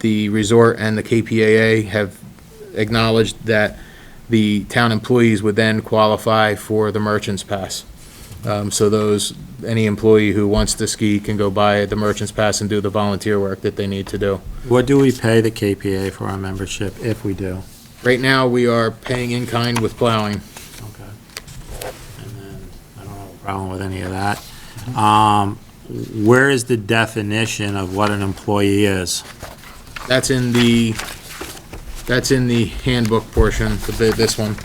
the resort and the KPAA have acknowledged that the town employees would then qualify for the merchant's pass. Um, So those, any employee who wants to ski can go buy the merchant's pass and do the volunteer work that they need to do. What do we pay the KPA for our membership, if we do? Right now, we are paying in kind with plowing. Okay. And then, I don't have a problem with any of that. Um, Where is the definition of what an employee is? That's in the, that's in the handbook portion, for the- this one.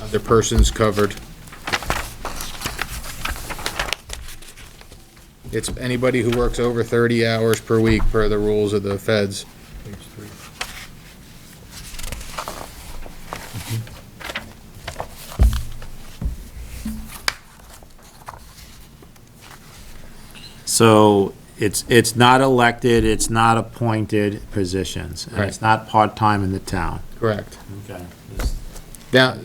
Other persons covered. It's anybody who works over 30 hours per week per the rules of the feds. So it's, it's not elected, it's not appointed positions, and it's not part-time in the town. Correct. Okay. Now,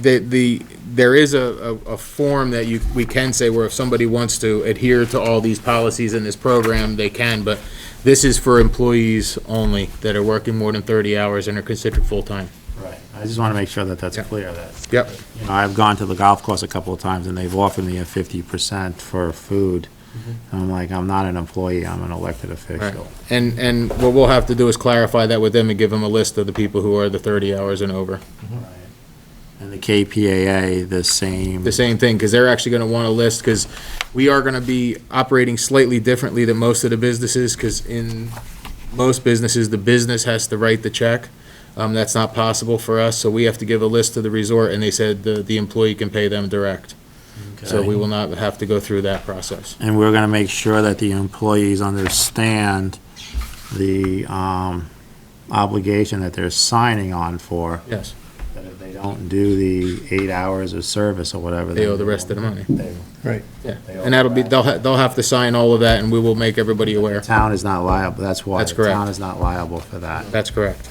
the, the, there is a, a, a form that you, we can say where if somebody wants to adhere to all these policies in this program, they can, but this is for employees only that are working more than thirty hours and are considered full-time. Right. I just want to make sure that that's Yeah. clear, that, Yep. you know, I've gone to the golf course a couple of times, and they've offered me a fifty percent for food. Mm-hmm. I'm like, I'm not an employee, I'm an elected official. And, and what we'll have to do is clarify that with them and give them a list of the people who are the thirty hours and over. Right. And the KPAA, the same. the same thing, because they're actually gonna want a list, because we are gonna be operating slightly differently than most of the businesses, because in most businesses, the business has to write the check. Um, that's not possible for us, so we have to give a list to the resort, and they said the, the employee can pay them direct. So we will not have to go through that process. And we're gonna make sure that the employees understand the, um, obligation that they're signing on for, Yes, that if they don't do the eight hours of service or whatever. they owe the rest of the money. they- Yeah, They owe and that'll be, back. they'll, ha- they'll have to sign all of that, and we will make everybody aware. Town is not liable, that's why. That's the Town correct. is not liable for that. That's correct.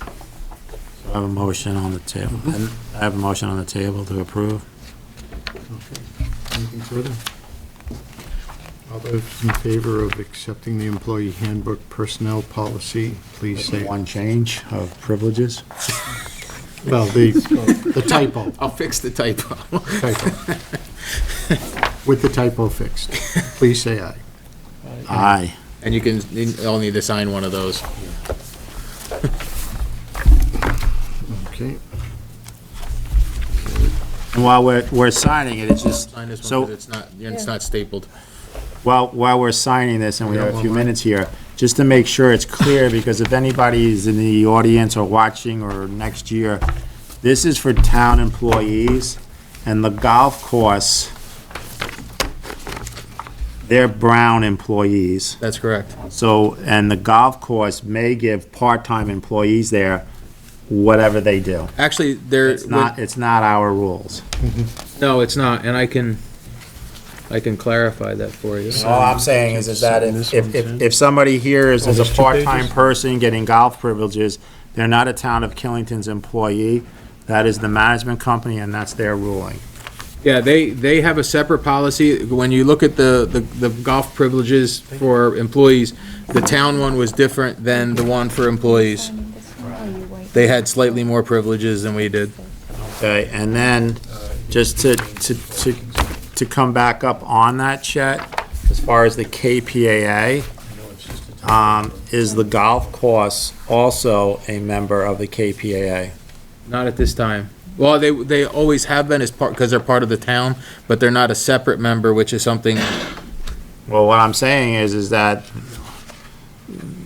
I have a motion on the table. I have a motion on the table to approve. Anything further? All those in favor of accepting the employee handbook personnel policy, please With the say, One change of privileges. well, the the typo, I'll fix the typo. typo. With the typo fixed, please say aye. Aye. And you can, you all need to sign one of those. Okay, And while we're, we're signing it, it's just, Sign this one, So- 'cause it's not, it's not stapled. while, while we're signing this, and we have a few minutes here, just to make sure it's clear, because if anybody is in the audience or watching or next year, this is for town employees, and the golf course, they're Brown employees. That's correct. So, and the golf course may give part-time employees there whatever they do. Actually, there, It's not, it's not our rules. no, it's not, and I can, I can clarify that for you. All I'm saying is, is that if, if, if- if somebody here is, is a part-time person getting golf privileges, they're not a town of Killington's employee. That is the management company and that's their ruling. Yeah, they, they have a separate policy. When you look at the, the the golf privileges for employees, the town one was different than the one for employees. They had slightly more privileges than we did. Okay, and then, just to, to, to, to come back up on that, Chet, as far as the KPAA, um, is the golf course also a member of the KPAA? Not at this time. Well, they, they always have been as part, because they're part of the town, but they're not a separate member, which is something, Well, what I'm saying is, is that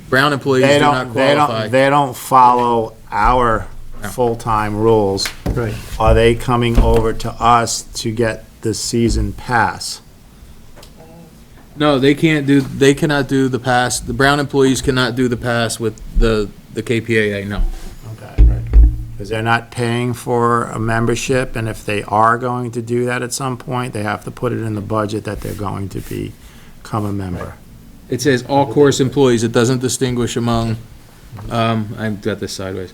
Brown employees they do not don't, they don't, qualify. they don't follow our No. full-time rules. right. Are they coming over to us to get the season pass? No, they can't do, they cannot do the pass, the Brown employees cannot do the pass with the, the KPAA, no. Because they're not paying for a membership, and if they are going to do that at some point, they have to put it in the budget that they're going to be- become a member. It says all course employees, it doesn't distinguish among, um, I've got this sideways.